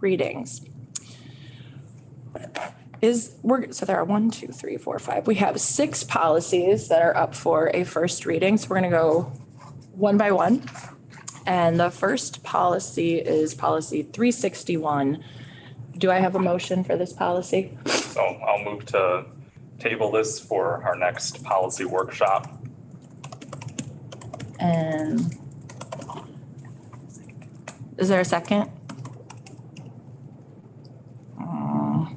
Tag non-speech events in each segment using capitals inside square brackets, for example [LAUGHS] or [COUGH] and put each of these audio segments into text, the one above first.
readings. Is, we're, so there are one, two, three, four, five. We have six policies that are up for a first reading. So we're going to go one by one. And the first policy is policy 361. Do I have a motion for this policy? So I'll move to table this for our next policy workshop. And is there a second? Mm.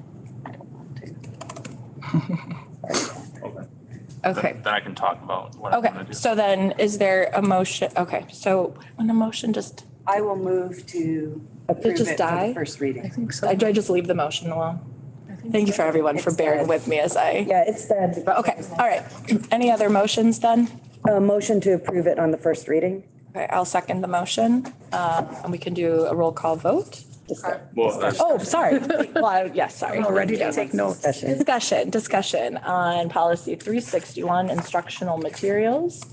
Okay, Then I can talk about what I okay. want to do. So then is there a motion? Okay, so an emotion just, I will move to Did it approve just it for die? the first reading. think so. I do I just leave the motion alone? Thank you for everyone for It's bearing dead. with me as I, Yeah, it's dead. but okay, all right. Any other motions then? A uh, motion to approve it on the first reading. Okay, I'll second the motion, um, and we can do a roll call vote. Well, that's- Oh, sorry. Well, I- yes, sorry. I'm ready to take notes. Discussion. Discussion, discussion on policy 361, instructional materials.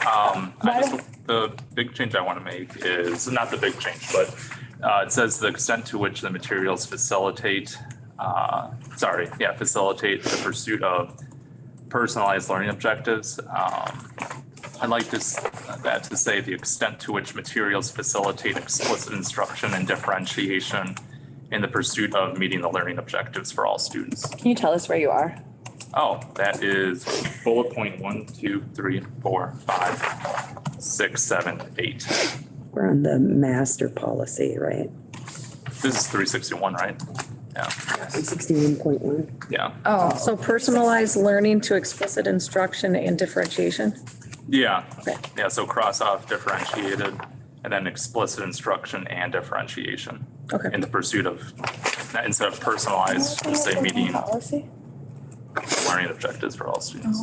Um, I Why just, the big change I want to make is, not the big change, but uh, it says the extent to which the materials facilitate, uh, sorry, yeah, facilitate the pursuit of personalized learning objectives. Um, I'd like this, that to say the extent to which materials facilitate explicit instruction and differentiation in the pursuit of meeting the learning objectives for all students. Can you tell us where you are? Oh, that is bullet point one, two, three, four, five, six, seven, eight. We're on the master policy, right? This is three sixty-one, right? Yeah, Sixty-one point one. yeah, Oh, So personalized learning to explicit instruction and differentiation. yeah, Okay. yeah, so cross off differentiated and then explicit instruction and differentiation Okay. in the pursuit of, not- instead of personalized, just say meeting Policy? learning objectives for all students.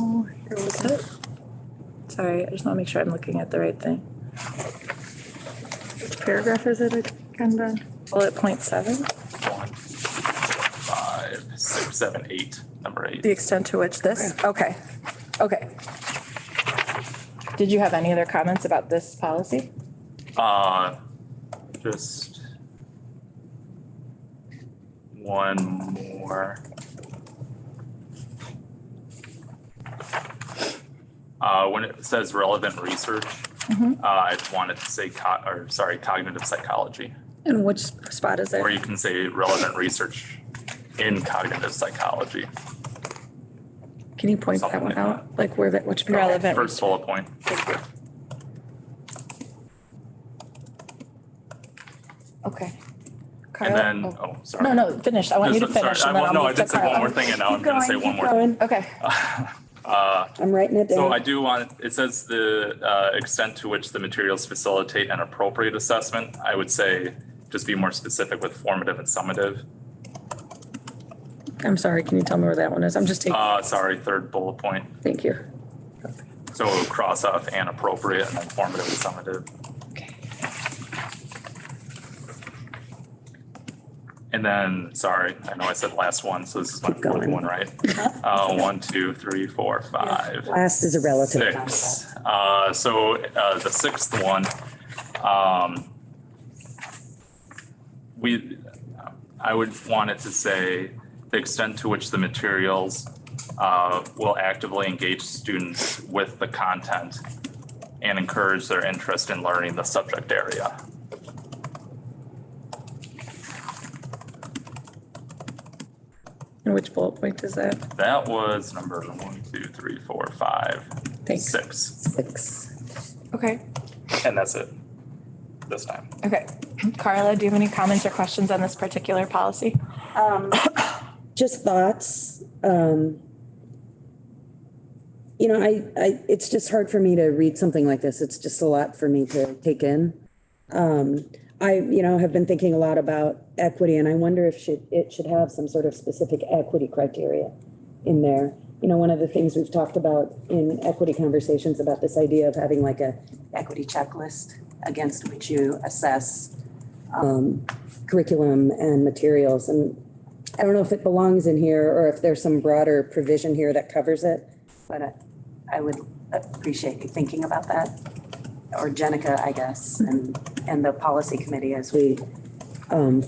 Sorry, I just want to make sure I'm looking at the right thing. Which paragraph is it? Kendra? Bullet point seven, One, five, six, seven, eight, number eight. the extent to which this, okay, okay. Did you have any other comments about this policy? Uh, just one more. Uh, when it says relevant research, Mhm. uh, I wanted to say co- or sorry, cognitive psychology, And which spot is it? or you can say relevant research in cognitive psychology. Can you point that Something one like out? Like where that, which? paragraph? Relevant. First bullet point. Okay. And Carla? then, Oh. oh, sorry. No, no, finish. I want you to Just- sorry, finish I- and then well, I'll No, I move to did say one more Carla. thing and now I'm gonna say one more. Okay, [LAUGHS] Uh, I'm writing it So down. I do want, it says the uh, extent to which the materials facilitate an appropriate assessment. I would say just be more specific with formative and summative. I'm sorry, can you tell me where that one is? I'm just taking, Uh, Sorry, third bullet point. thank you. So cross off and appropriate and then formative and summative. And then, sorry, I know I said last one, so this is my Keep fourth going. Uh-huh. one, right? Uh, One, two, three, four, five. Last is a relative. concept. Six. Uh, so, uh, the sixth one, um, we, I would want it to say the extent to which the materials, uh, will actively engage students with the content and encourage their interest in learning the subject area. And which bullet point is that? That was number one, two, three, four, five, Thanks. six, Six. okay, and that's it this time. okay. Carla, do you have any comments or questions on this particular policy? Um, Just thoughts. Um, you know, I, I, it's just hard for me to read something like this. It's just a lot for me to take in. Um, I, you know, have been thinking a lot about equity and I wonder if should, it should have some sort of specific equity criteria in there. You know, one of the things we've talked about in equity conversations about this idea of having like a Equity checklist against which you assess. um, curriculum and materials. And I don't know if it belongs in here or if there's some broader provision here that covers it. But I- I would appreciate you thinking about that, or Jenica, I guess, and, and the policy committee as we Um,